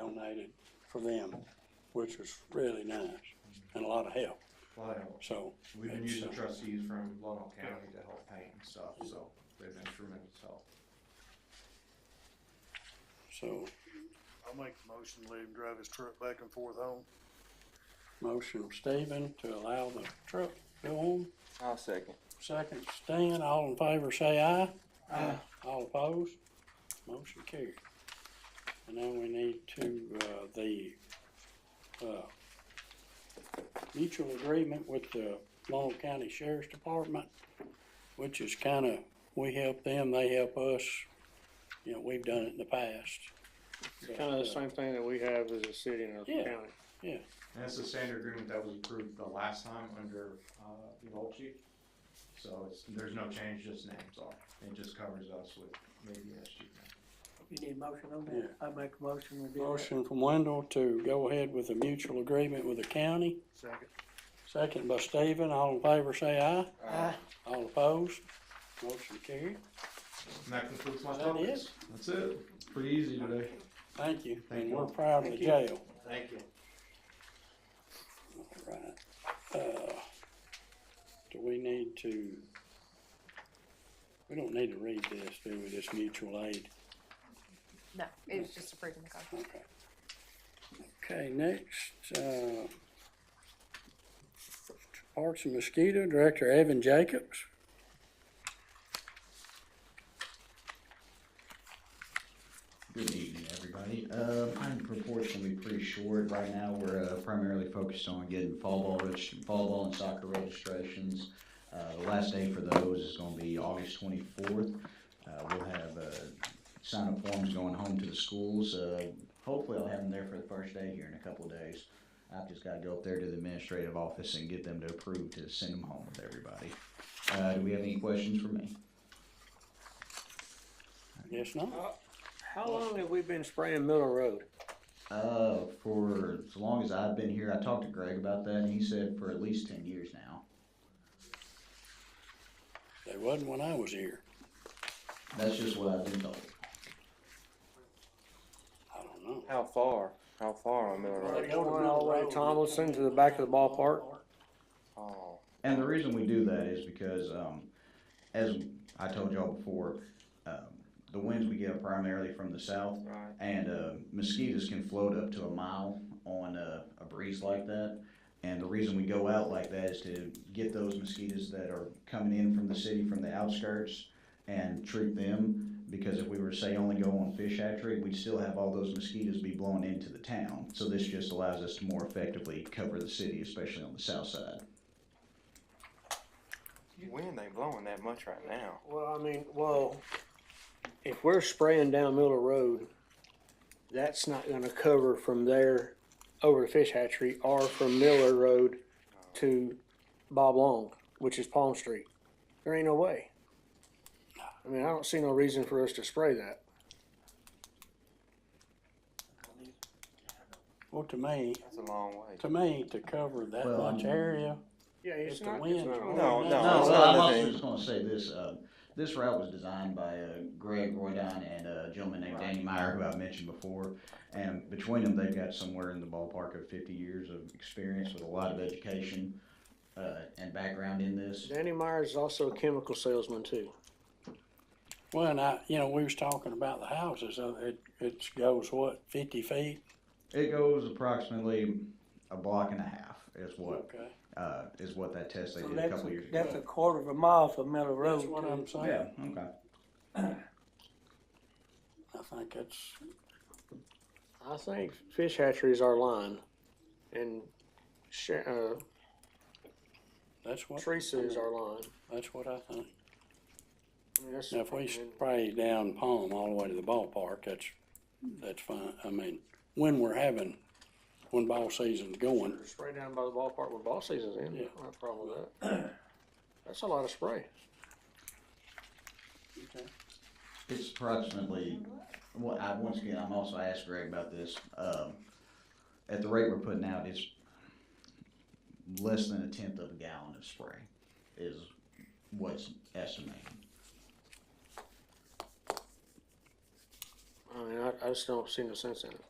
nominated for them, which was really nice and a lot of help, Well, that helps. so. We've been it's, using uh, trustees from Lonoc County to help paint and stuff, so they've been tremendous help. So, I'll make a motion, let him drive his truck back and forth home. motion Stephen to allow the truck to go on, I'll second. second Stan, all in favor say aye. Aye. All opposed, motion carried. And now we need to, uh, the, uh, mutual agreement with the Long County Sheriff's Department, which is kinda, we help them, they help us, you know, we've done it in the past. Kind of the same thing that we have as a city and Yeah. a county. And that's the standard agreement that was approved the last time under, uh, the old chief. So it's, there's no change, just names are. It just covers us with maybe S G now. You need a motion on that? I make a motion, we do that. Motion from Wendell to go ahead with a mutual agreement with the county, Second. second by Stephen, all in favor say aye. Aye. All opposed, motion carried, And that concludes my Is that it? topics. That's it. Pretty easy today. thank you, Thank and you. we're proud of the Thank you. jail. Thank you. Right. Uh, Do we need to? We don't need to read this, do we, this mutual aid? No, it was just approving the contract. Okay. Okay, next, uh, Parks and Mosquito Director Evan Jacobs. Good evening, everybody. Uh, my report's gonna be pretty short. Right now, we're uh, primarily focused on getting fall ball, reg- fall ball and soccer registrations. Uh, the last day for those is gonna be August twenty-fourth. Uh, we'll have, uh, sign-up forms going home to the schools. Uh, hopefully I'll have them there for the first day here in a couple of days. I've just gotta go up there to the administrative office and get them to approve to send them home with everybody. Uh, do we have any questions for me? Yes, no? How long have we been spraying Miller Road? Uh, for as long as I've been here, I talked to Greg about that, and he said for at least ten years now. They wasn't when I was here. That's just what I've been told. I don't know. How far? How far on Miller Road? Going all the way to Tomlinson to the back of the ballpark? Oh, And the reason we do that is because, um, as I told y'all before, um, the winds we get are primarily from the south, right. and uh, mosquitoes can float up to a mile on a, a breeze like that. And the reason we go out like that is to get those mosquitoes that are coming in from the city, from the outskirts, and treat them. Because if we were to say only go on fish hatchery, we'd still have all those mosquitoes be blown into the town. So this just allows us to more effectively cover the city, especially on the south side. Wind ain't blowing that much right now. Well, I mean, well, if we're spraying down Miller Road, that's not gonna cover from there over to Fish Hatchery or from Miller Road to Bob Long, which is Palm Street. There ain't no way. I mean, I don't see no reason for us to spray that. Well, to me, That's a long way. to me, to cover that Well, much um, area, Yeah, it's If the not- it's wind- not- No, no. No, it's well, not I'm a also thing. just gonna say this, uh, this route was designed by, uh, Greg Roydon and uh, a gentleman named Danny Meyer, who I mentioned before. And between them, they've got somewhere in the ballpark of fifty years of experience with a lot of education, uh, and background in this. Danny Myers is also a chemical salesman too. well, and I, you know, we was talking about the houses, uh, it, it goes what, fifty feet? It goes approximately a block and a half is what, Okay. uh, is what that test they So did a that's, couple a- years that's a ago. quarter of a mile from Miller Road. That's what to- I'm saying. Yeah, okay. I think it's, I think Fish Hatchery is our line and Sha- uh, that's what. Teresa is our line. That's what I think. I mean, that's- Now, if we and- spray down Palm all the way to the ballpark, that's, that's fine. I mean, when we're having, when ball season's going, Spray down by the ballpark when ball season's in, Yeah. not a problem with that. That's a lot of spray. It's approximately, well, I, once again, I'm also asked Greg about this, um, at the rate we're putting out, it's less than a tenth of a gallon of spray is what's estimated. I mean, I, I just don't see no sense in it.